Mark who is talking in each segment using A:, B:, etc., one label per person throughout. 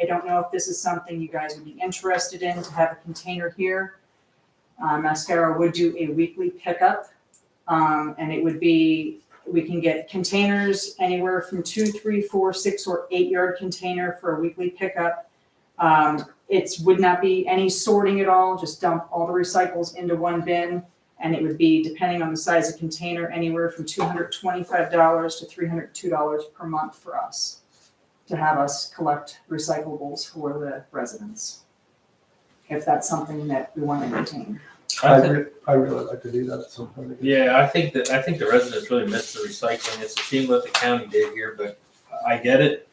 A: I don't know if this is something you guys would be interested in, to have a container here. Uh, Mascara would do a weekly pickup, um, and it would be, we can get containers anywhere from two, three, four, six, or eight-yard container for a weekly pickup. Um, It would not be any sorting at all, just dump all the recycles into one bin. And it would be, depending on the size of container, anywhere from two hundred twenty-five dollars to three hundred two dollars per month for us to have us collect recyclables for the residents. If that's something that we want to maintain.
B: I
C: I think,
B: re- I really like to do that at some point.
C: yeah, I think that, I think the residents really miss the recycling. It's a shame what the county did here, but I get it.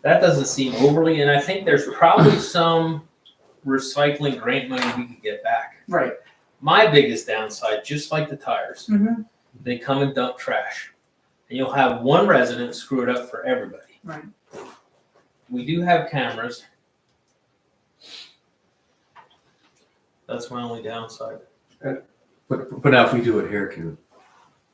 C: That doesn't seem overly, and I think there's probably some recycling grant money we could get back.
A: Right.
C: My biggest downside, just like the tires,
A: Mm-hmm.
C: they come and dump trash. And you'll have one resident screw it up for everybody.
A: Right.
C: We do have cameras. That's my only downside.
D: But, but now if we do it here, can,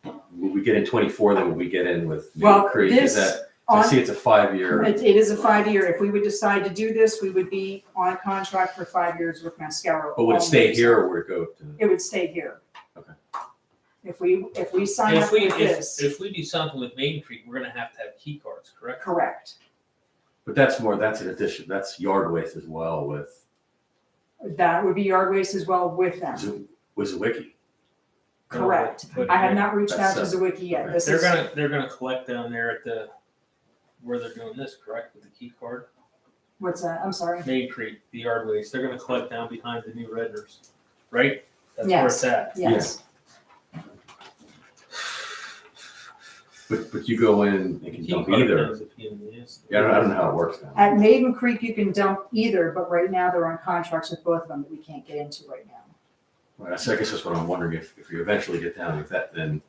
D: will we get in twenty-four, then will we get in with New
A: Well,
D: Creek? Is
A: this
D: that, I
A: On,
D: see it's a five-year,
A: it, it is a five-year. If we would decide to do this, we would be on a contract for five years with Mascaro.
D: but would it stay
A: only.
D: here or would it go to?
A: It would stay here.
D: Okay.
A: If we, if we sign up
C: If we,
A: for
C: if,
A: this,
C: if we do something with Main Creek, we're gonna have to have key cards, correct?
A: correct.
D: But that's more, that's an addition, that's yard waste as well with,
A: That would be yard waste as well with them.
D: Zoo- with Zwicky.
A: Correct.
C: But
A: I have not reached out to
D: That's,
A: Zawiki yet.
D: okay.
A: This
C: They're
A: is,
C: gonna, they're gonna collect down there at the, where they're doing this, correct, with the key card?
A: what's that? I'm sorry.
C: Main Creek, the yard waste, they're gonna collect down behind the new Redners, right? That's where
A: Yes.
C: it's at.
A: Yes.
D: But, but you go in and
C: The
D: can
C: key
D: dump
C: card
D: either.
C: knows if he is.
D: Yeah, I don't, I don't know how it works now.
A: At Maiden Creek, you can dump either, but right now they're on contracts with both of them that we can't get into right now.
D: Right, so I guess that's what I'm wondering, if, if you eventually get down with that, then,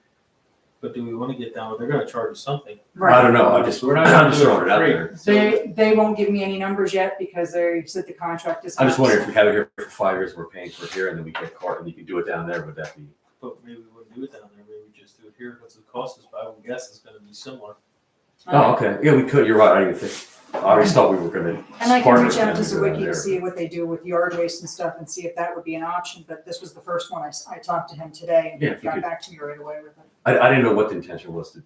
C: But do we wanna get down, they're gonna charge us something.
D: I
A: Right.
D: don't know, I just,
C: We're
D: I'm
C: not gonna
D: just
C: do it
D: throwing it out
C: for
D: there.
C: free. So,
A: They, they won't give me any numbers yet because they said the contract is.
D: I'm just
A: not-
D: wondering if we have it here for five years, we're paying for it here, and then we get caught, and you can do it down there, would that be?
C: But maybe we wouldn't do it down there, maybe we just do it here, because the cost is, I would guess it's gonna be similar.
A: Um,
D: Oh, okay, yeah, we could, you're right, I didn't even think, I always thought we were gonna.
A: And I can
D: partner
A: reach out to
D: with them
A: Zawiki
D: and go
A: to
D: down
A: see what they do with yard waste and stuff and see if that would be an option, but this was the first one. I, s- I talked to him today
D: Yeah, if
A: and
D: you
A: got
D: could-
A: back to me right away with it.
D: there. I, I didn't know what the intention was to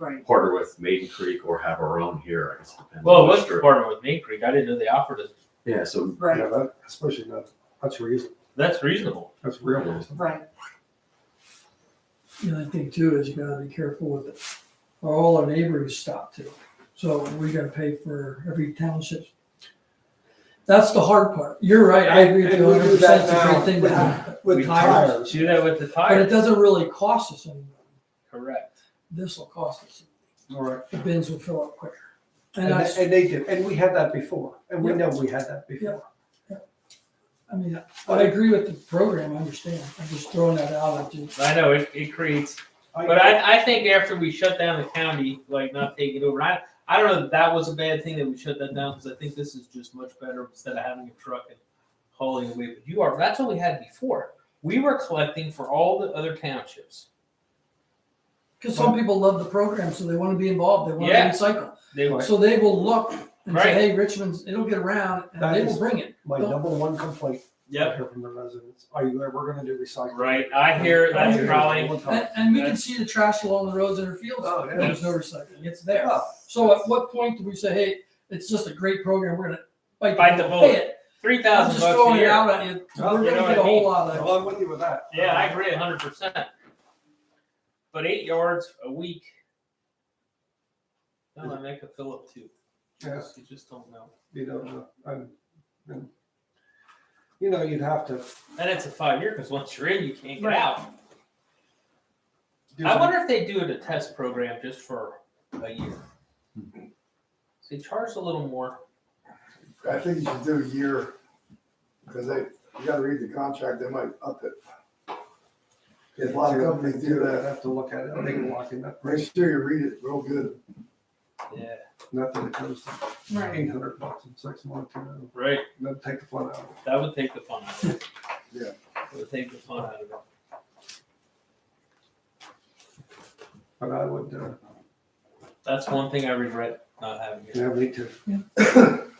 A: Right.
D: partner with Maiden Creek or have our own here, I guess. it depends
C: Well,
D: on
C: it was
D: the store.
C: partner with Main Creek, I didn't know they offered us,
D: Yeah, so,
A: Right,
B: Yeah, that, especially that, that's reason,
C: that's reasonable.
B: that's real reason.
A: right.
E: And I think too is you gotta be careful with it. Are all our neighbors stopped too? So we gotta pay for every township. That's the hard part. You're right. I agree with you
B: And we do
E: hundred percent.
B: that
E: It's a
B: now
E: great thing to
B: with-
E: have
C: We
E: with tires.
B: tires.
C: Do that with the
E: But it
C: tires.
E: doesn't really cost us anything.
C: Correct.
E: This will cost us.
B: All right.
E: The bins will fill up quicker. And
B: And,
E: I,
B: they- and they do, and we had that before, and we know we had that before.
E: I mean, I agree with the program. I understand. I'm just throwing that out. I just-
C: I know it, it creates, but I, I think after we shut down the county, like not take it over, I, I don't know that that was a bad thing that we shut that down because I think this is just much better instead of having a truck and hauling away. But you are, that's what we had before. We were collecting for all the other townships.
E: Cause some people love the program, so they wanna be involved. They wanna
C: Yeah.
E: recycle.
C: They were,
E: So they will look and say,
C: Right.
E: hey, Richmond's, it'll get around and
B: That
E: they
B: is-
E: will bring it.
B: My number one complaint I
C: yep,
B: hear from the residents, are you ever gonna do recycling?
C: right. I hear
B: I
C: that's
B: hear it
C: probably,
B: all the time.
E: And, and we can
C: That's-
E: see the trash along the roads in our fields.
B: Oh, yeah.
E: There's no recycling. It's there.
B: Yeah.
E: So at what point do we say, hey, it's just a great program. We're gonna bite,
C: Bite the
E: bullet,
C: bullet.
E: pay it.
C: three
E: I'm
C: thousand
E: just
C: bucks a
E: throwing it
C: year.
E: out at you.
B: Well,
E: We're
B: you
C: know
E: gonna
C: what
E: get a
C: I mean.
E: whole lot of it.
B: Well, I'm with you with that.
C: Yeah, I agree a hundred percent. But eight yards a week. No, I make a fill up too. You
B: Yeah.
C: just- You just don't know.
B: You know, and, and, you know, you'd have to.
C: And it's a five year, because once you're in, you can't get
A: Right.
C: out.
B: do
C: I
B: some-
C: wonder if they do it a test program just for a year. So you charge a little more.
F: I think you should do a year, because they, you gotta read the contract, they might up it. If a lot of companies do
B: I'd
F: that,
B: Have to look at it, I think we're locking up,
F: make sure you read it real good.
C: Yeah,
B: nothing that comes to
A: Right.
B: eight hundred bucks in six months, you know,
C: right.
B: that'd take the fun out of it.
C: That would take the fun out of it.
F: Yeah.
C: It Would take the fun out of it.
B: But I would, uh,
C: That's one thing I regret not having it.
B: yeah, me too.